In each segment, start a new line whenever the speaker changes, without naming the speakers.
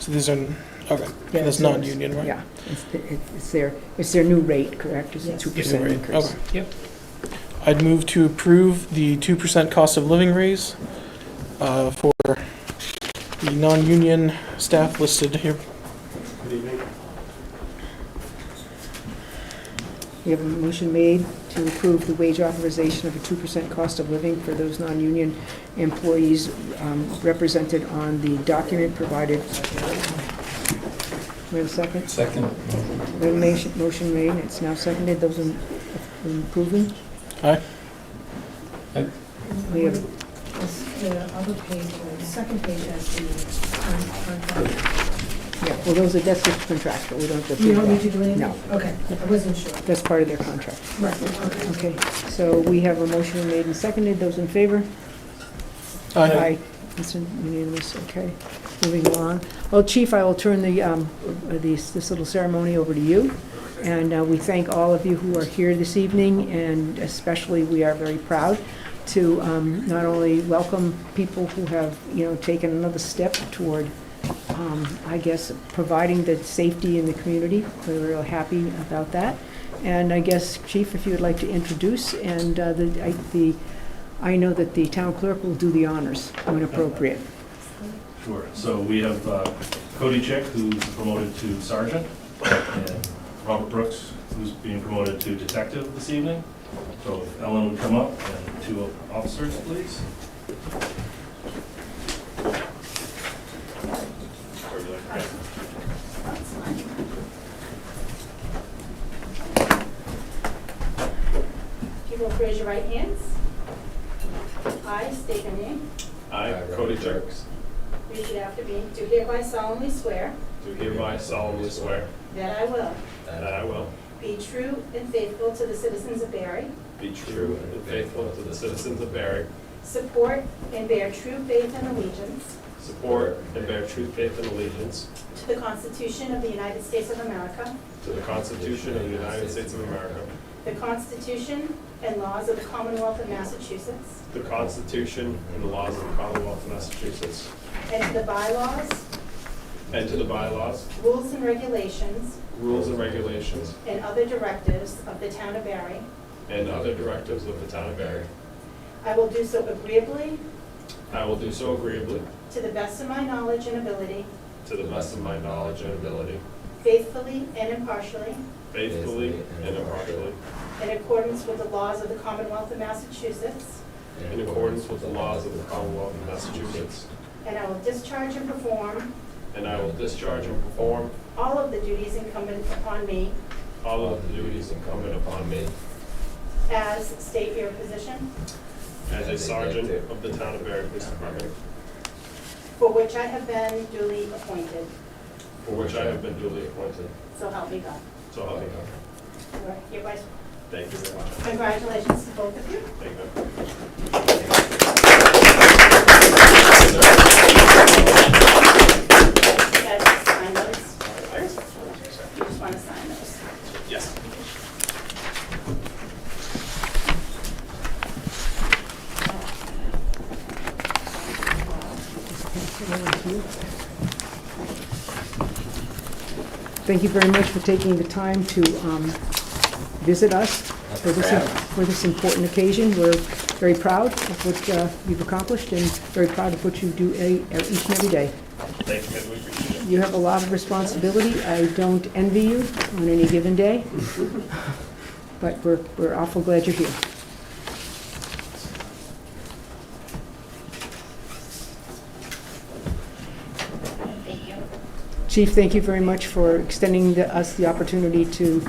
So these are, okay,
Yeah,
that's
so it's-
non-union, right?
Yeah, it's, it's their, it's their new rate, correct? It's a
Yes.
two
Is it
percent
right?
increase.
Okay. I'd move to approve the 2% cost of living raise uh, for the non-union staff listed here.
Good evening.
We have a motion made to approve the wage authorization of a two percent cost of living for those non-union employees um, represented on the document provided. We have a second?
Second.
We have a motion- motion made, it's now seconded, those in in approving?
Aye.
Aye.
We have
This- The other page, uh, the second page has the uh, con- contract.
Yeah, well, those are, that's just contractual, we don't have to.
You don't
approve
need
that.
to do anything?
No.
Okay, I wasn't sure.
That's part of their contract.
Right, okay.
Okay, so we have a motion made and seconded, those in favor?
Aye.
It's unanimous, okay. Moving along. Well, Chief, I will turn the, um, uh, these- this little ceremony over to you. And uh, we thank all of you who are here this evening, and especially, we are very proud to um, not only welcome people who have, you know, taken another step toward, um, I guess, providing the safety in the community. We're real happy about that. And I guess, Chief, if you would like to introduce, and uh, the, I- the I know that the town clerk will do the honors when appropriate.
Sure. So we have uh, Cody Chick, who's promoted to sergeant, and Robert Brooks, who's being promoted to detective this evening. So if Ellen would come up, and two officers, please.
If you will raise your right hands. I state your name.
I, Cody Chick,
Repeat after me. Do hereby solemnly swear
do hereby solemnly swear
that I will
that I will
be true and faithful to the citizens of Barry,
be true and faithful to the citizens of Barry,
support and bear true faith and allegiance
support and bear true faith and allegiance
to the Constitution of the United States of America,
to the Constitution of the United States of America,
the Constitution and laws of the Commonwealth of Massachusetts,
the Constitution and the laws of the Commonwealth of Massachusetts,
and to the bylaws,
and to the bylaws,
rules, and regulations
rules and regulations,
and other directives of the town of Barry.
and other directives of the town of Barry.
I will do so agreeably,
I will do so agreeably,
to the best of my knowledge and ability,
to the best of my knowledge and ability,
faithfully and impartially,
faithfully and impartially,
In accordance with the laws of the Commonwealth of Massachusetts,
in accordance with the laws of the Commonwealth of Massachusetts,
and I will discharge and perform
and I will discharge and perform
all of the duties incumbent upon me
all of the duties incumbent upon me
as state your position,
as a sergeant of the town of Barry Police Department,
for which I have been duly appointed.
for which I have been duly appointed.
So help me God.
So help me God.
You are hereby-
Thank you very much.
Congratulations to both of you.
Thank you.
You guys just sign those first. You just want to sign those.
Yes.
Thank you very much for taking the time to um, visit us for this, for this important occasion. We're very proud of what uh, you've accomplished and very proud of what you do e- each and every day.
Thank you, guys. we appreciate it.
You have a lot of responsibility. I don't envy you on any given day, but we're we're awful glad you're here.
Thank you.
Chief, thank you very much for extending the- us the opportunity to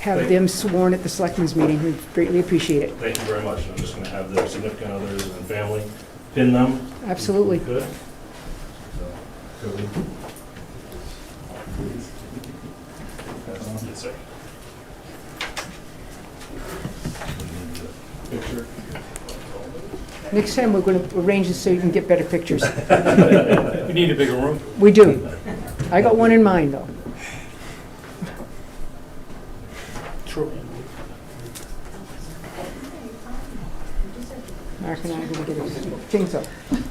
have them sworn at the Selectmen's meeting. We greatly appreciate it.
Thank you very much. I'm just gonna have the significant others and family pin them.
Absolutely.
Good. So, Cody. Yes, sir. Picture.
Next time, we're going to arrange this so you can get better pictures.
We need a bigger room.
We do. I got one in mind, though.
True.
Mark and I are going to get a things up.